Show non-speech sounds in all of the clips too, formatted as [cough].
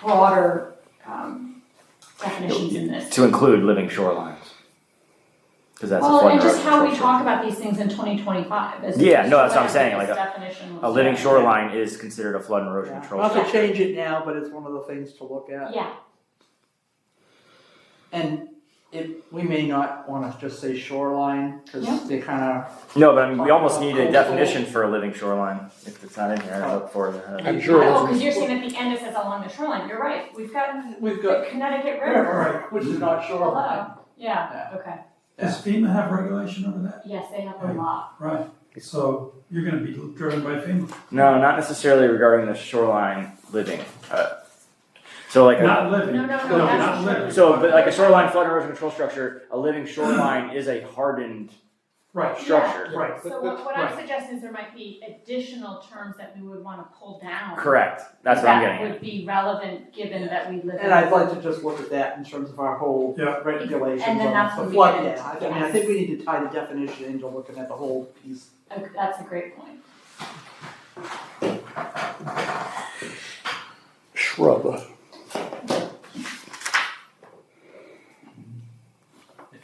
broader um, definitions in this. to include living shorelines. Because that's a Well, and flood just how we restriction. talk about these things in twenty twenty-five is. Yeah, no, that's what I'm I saying, think like this Definition was. A living shoreline is considered a flood and erosion Yeah. control. I'll have to change it now, but it's one of the things to look at. Yeah, And it, we may not wanna just say shoreline, Yeah. cause they kinda, No, but I mean, we almost Uh, need a coastal. definition for a living shoreline. If it's not in here, I look for it. I'm sure. it oh, wasn't- cause you're saying at the end it says along the shoreline, you're right, we've got we've got, the Connecticut River river, which is not shoreline. below, yeah, okay, Does FEMA have regulation over that? yes, they have a lot, Right, so you're gonna be driven by FEMA. No, not necessarily regarding the shoreline living. Uh, so like a, Not no, living. no, no, No, not that's. living. so, but like a shoreline flood erosion control structure, a living shoreline is a hardened Right, structure. right. So But- what, but- what I'm right. suggesting is there might be additional terms that we would wanna pull down. Correct. That's what I'm getting That at. would be relevant, given that we live in. And I'd like to just look at that in terms of our whole Yeah. regulations And then that's on when the we flood, get into- yeah, I mean, I think we need to tie the definition into looking at the whole piece. Okay, That's a great point. Shrub. If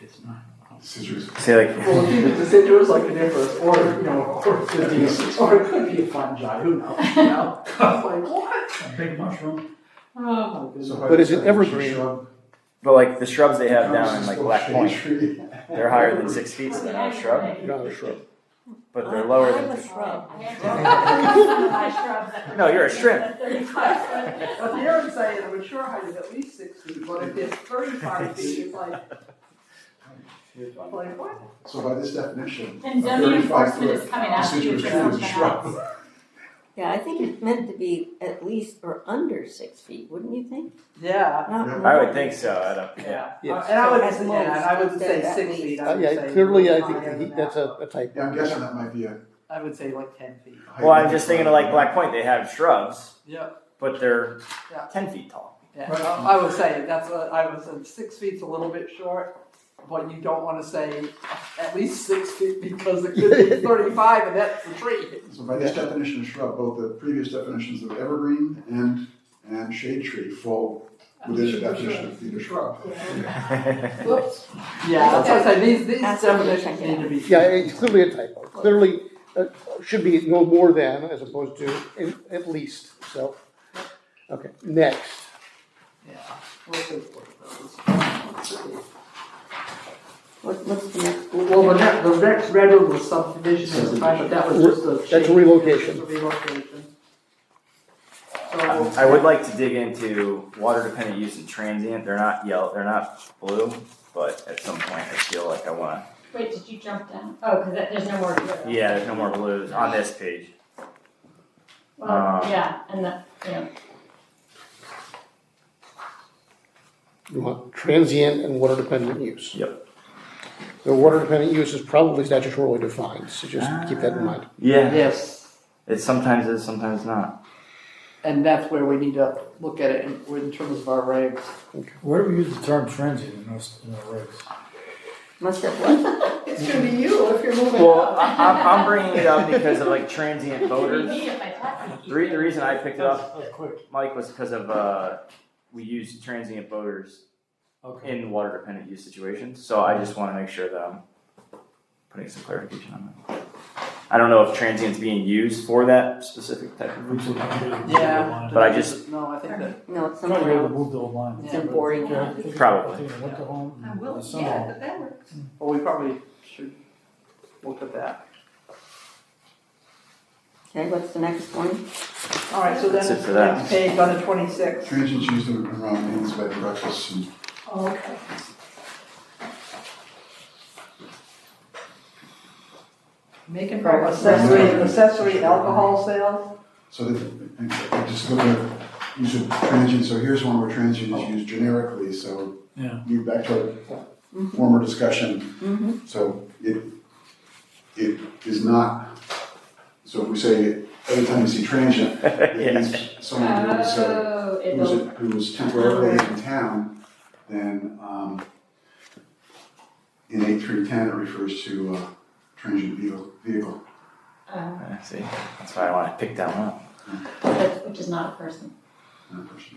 it's not. Scissors. Say like, Well, if it's deciduous like coniferous, or, you know, or it could be, [laughs] or it could be a fungi, who knows, you know? [laughs] It's like, what? A big mushroom. Oh, my So goodness. if I But is it decide to evergreen? shrub, but like the shrubs they have becomes down in this like little Black shade Point, tree. they're higher than six feet, so they're not a shrub, Not a shrub. but they're lower than. I'm a shrub. [laughs] I had to- some of my shrubs that were No, you're a bigger than shrimp. 35 foot. But the other side is, I'm sure height is at least six feet, but if it's [laughs] thirty-five feet, it's like, like, what? So by this definition. And a zoning 35 enforcement foot is coming after you deciduous for tree is a something shrub. else. Yeah, I think it's meant to be at least or under six feet, wouldn't you think? Yeah, Not I more. would think so. I don't. yeah, Uh, Yes. and I would, At yeah, and I would most, say at six least. feet, I Uh, would say. yeah, clearly, I higher think he, than that's that. a, a type. Yeah, I'm guessing that might be a. I would say like ten feet. height Well, I'm limit. just thinking of like Black Point, they have shrubs, Yep, but they're Yeah. ten feet [laughs] tall. yeah, Right. uh, I would say, that's what, I would say, six feet's a little bit short, but you don't wanna say at least six feet, because it could [laughs] be thirty-five, and that's the tree. So by this definition of shrub, both the previous definitions of evergreen and, and shade tree fall within the definition of being a shrub. Whoops. Yeah, that's what I said, these, these That's what we definitions check it need to be. Yeah, it's clearly a typo. Clearly, uh, should be no more than as opposed to in- at least, so. Okay, next. Yeah, we'll take a look at those. Let's see. What, what's the next? Well, the next, the next red one was subdivision at the time, but that was just a. That's change. relocation. It's a relocation. So. I would like to dig into water dependent use and transient. They're not yellow, they're not blue, but at some point I feel like I wanna. Wait, did you jump down? Oh, because there's no more. to it. Yeah, there's no more blues on this page. Well, Um, yeah, and the, yeah, You want transient and water dependent use. Yep. The water dependent use is probably statutorily defined, so just keep that in mind. Yeah, Yes, it sometimes is, sometimes not. and that's where we need to look at it in, in terms of our regs. Where do we use the term transient in those, in our regs? Must [laughs] have what? It's gonna be you if you're moving Well, I, I'm, I'm bringing it up because of like transient voters. Me if I touch it. The, re- the reason I picked it up, Oh, quick, Mike, was because of uh, we use transient voters okay. in water dependent use situations. So I just want to make sure that I'm putting some clarification on that. I don't know if transient's being used for that specific type of reason. Yeah. But I just- No, I think that, No, it's I'm trying to somewhere get able else. to move the line. It's Yeah, but- boring. yeah, I think- Probably. I think in the winter home I and will, the summer home. that works. well, we probably should look at that. Okay, what's the next one? All right, so then That's it for that. next page on the twenty-sixth. Transients used in- around means bed and breakfasts and Oh, okay. Making progress. Accessory, accessory alcohol sales? So that, and I just look at, use of transient, so here's one where transient is used generically, so. Yeah. Move back to our former discussion, Mm-hmm. so it, it is not, so if we say, every time you see transient, it yeah. means someone who is, uh, Oh, it who is, will, who is temporarily in town, then, um, in eight three ten, it refers to, uh, transient vehicle, vehicle. uh, I see. That's why I want to pick that one up. that's- which is not a person. not person.